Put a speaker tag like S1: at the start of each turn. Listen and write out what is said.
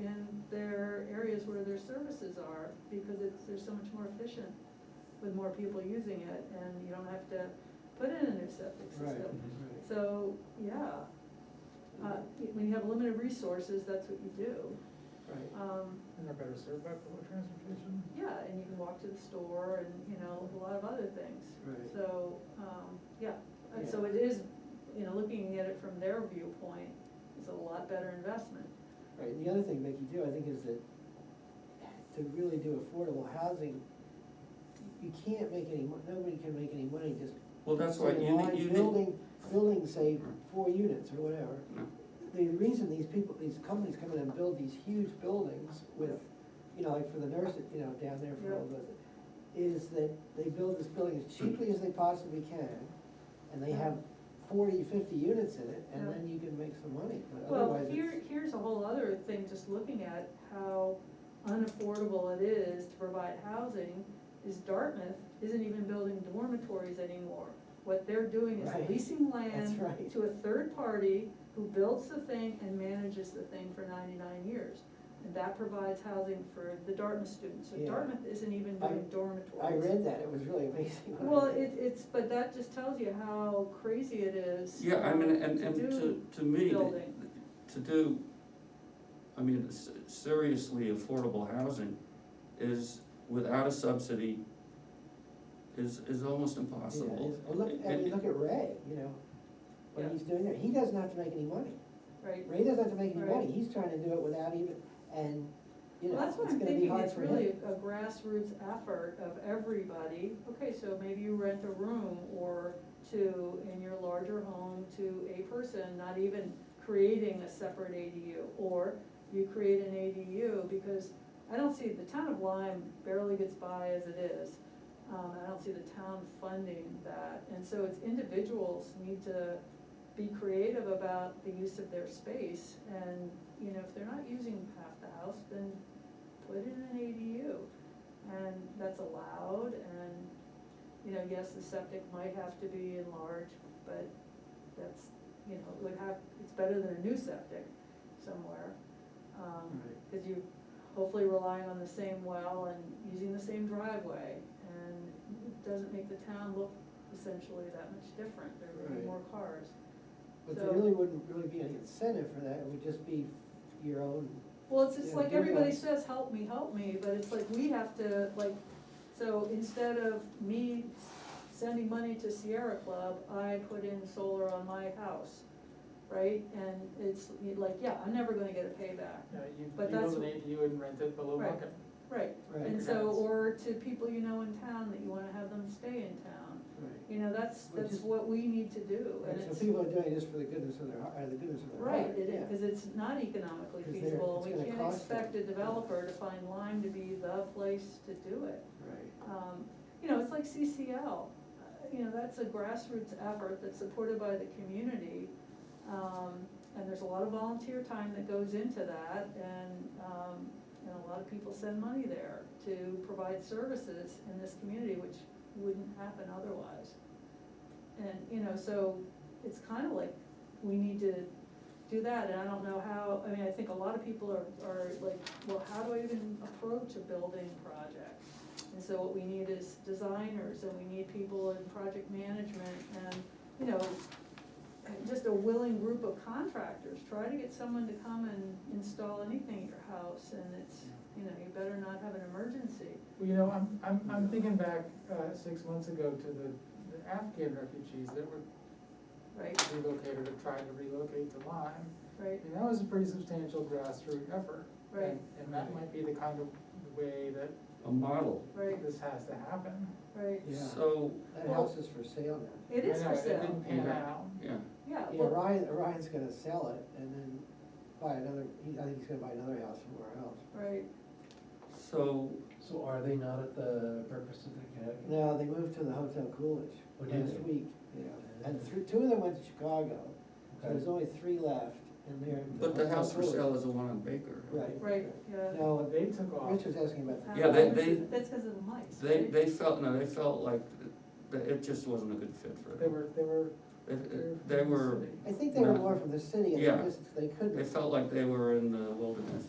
S1: in their areas where their services are, because it's, they're so much more efficient with more people using it, and you don't have to put in a new septic
S2: Right,
S1: system.
S2: right.
S1: So, yeah, uh, when you have limited resources, that's what you do.
S2: Right.
S1: Um,
S2: And they're better served by public transportation?
S1: yeah, and you can walk to the store and, you know, a lot of other things.
S2: Right.
S1: So, um, yeah, and so
S2: Yeah.
S1: it is, you know, looking at it from their viewpoint, it's a lot better investment.
S3: Right, and the other thing that you do, I think, is that to really do affordable housing, you can't make any, mon- nobody can make any money just.
S4: Well, that's why you need,
S3: saying,
S4: you
S3: "Well, I'm
S4: need. Mm.
S3: Building, building, say, four units or whatever.
S4: No.
S3: The reason these people, these companies come in and build these huge buildings with, you know, like for the nurses, you know, down there for all
S1: Yeah.
S3: those, is that they build this building as cheaply as they possibly can, and they have forty, fifty units in it, and
S1: Yeah.
S3: then you can make some money, but
S1: Well,
S3: otherwise it's.
S1: here, here's a whole other thing, just looking at how unaffordable it is to provide housing, is Dartmouth isn't even building dormitories anymore. What they're doing is
S3: Right.
S1: leasing
S3: That's
S1: land
S3: right.
S1: to a third party who builds the thing and manages the thing for ninety-nine years. And that provides housing for the Dartmouth students, so
S3: Yeah.
S1: Dartmouth isn't even
S3: I-
S1: doing dormitories.
S3: I read that, it was really amazing. when I
S1: Well,
S3: read
S1: it, it's, but that just tells you how crazy it is.
S4: Yeah, I mean, and,
S1: to
S4: and to,
S1: do
S4: to me,
S1: building.
S4: to do, I mean, s- seriously affordable housing is, without a subsidy, is, is almost
S3: Yeah,
S4: impossible.
S3: it's- Well, look, I mean, look at Ray, you know,
S1: Yeah.
S3: what he's doing there, he doesn't have to make any money,
S1: Right.
S3: Ray doesn't have to make any
S1: Right.
S3: money, he's trying to do it without even, and, you
S1: Well,
S3: know,
S1: that's
S3: it's
S1: what I'm
S3: gonna be
S1: thinking,
S3: hard
S1: it's
S3: for him.
S1: really a grassroots effort of everybody, okay, so maybe you rent a room or two in your larger home to a person, not even creating a separate ADU, or you create an ADU, because I don't see, the town of Lyme barely gets by as it is. Um, I don't see the town funding that, and so it's individuals need to be creative about the use of their space, and, you know, if they're not using half the house, then put in an ADU. And that's allowed, and, you know, yes, the septic might have to be enlarged, but that's, you know, it would have, it's better than a new septic somewhere. Um,
S3: Right.
S1: cause you hopefully relying on the same well and using the same driveway, and it doesn't make the town look essentially that much different, there would
S3: Right.
S1: be more cars.
S3: But there
S1: so-
S3: really wouldn't really be any incentive for that, it would just be your own,
S1: Well, it's just
S3: Yeah,
S1: like
S3: do
S1: everybody
S3: that.
S1: says, help me, help me, but it's like we have to, like, so instead of me sending money to Sierra Club, I put in solar on my house, right? And it's like, yeah, I'm never gonna get a payback.
S2: Yeah, Uh, you, you
S1: But that's-
S2: build an ADU and rent it below
S1: Right.
S2: market.
S1: Right,
S3: Right.
S1: and so, or to people you know in town that you wanna have them stay in town.
S3: right.
S1: You know, that's,
S3: Which
S1: that's
S3: is-
S1: what we need to do, and
S3: So
S1: it's,
S3: people are doing it just for the goodness of their, heart- or the goodness of their
S1: right,
S3: heart,
S1: it
S3: yeah.
S1: is, cause it's not economically
S3: 'Cause they're-
S1: feasible.
S3: it's
S1: We
S3: gonna
S1: can't
S3: cost them.
S1: expect a developer to find Lyme to be the place to do it.
S3: Right.
S1: um, you know, it's like CCL, Uh, you know, that's a grassroots effort that's supported by the community. Um, and there's a lot of volunteer time that goes into that and, um, and a lot of people send money there to provide services in this community, which wouldn't happen otherwise. And, you know, so it's kind of like, we need to do that, and I don't know how, I mean, I think a lot of people are, are like, well, how do I even approach a building project? And so what we need is designers, and we need people in project management, and, you know, just a willing group of contractors, try to get someone to come and install anything at your house, and it's, you know, you better not have an emergency.
S2: Well, you know, I'm, I'm, I'm thinking back, uh, six months ago to the the Afghan refugees that were
S1: Right,
S2: relocated or tried to relocate to Lyme.
S1: right,
S2: And that was a pretty substantial grassroots effort.
S1: Right.
S2: And- And that might be the kind of way that
S4: A model.
S1: right,
S2: this has to happen.
S1: right.
S3: Yeah.
S4: So,
S3: That
S1: Well-
S3: house is for sale now.
S1: It is
S2: I know,
S1: for
S2: It
S1: sale,
S2: didn't pan out.
S4: yeah,
S1: yeah,
S3: Yeah,
S1: well,
S3: Ryan, Ryan's gonna sell it and then buy another, he, I think he's gonna buy another house somewhere else.
S1: right,
S4: so,
S5: So are they not at the breakfast at the academy?
S3: No, they moved to the Hotel Coolidge
S5: Oh, did
S3: last
S5: they?
S3: week, yeah, and three, two of them went to Chicago, so there's
S5: Okay.
S3: only three left, and they're. in
S4: but the
S3: Hotel
S4: house for
S3: Coolidge.
S4: sale is the one on Baker.
S3: Right.
S1: right, yeah.
S3: No,
S2: But they took off.
S3: Rich was asking about the.
S4: Yeah, they-
S1: Uh,
S4: they-
S1: That's because of the mice.
S4: They,
S1: right?
S4: they felt, no, they felt like, th- that it just wasn't a good fit for
S2: They
S4: them.
S2: were, they were.
S4: It- it-
S2: they
S4: They were,
S2: city.
S3: I think they were
S4: No.
S3: more from the city and
S4: Yeah.
S3: they just, they couldn't.
S4: they felt like they were in the wilderness.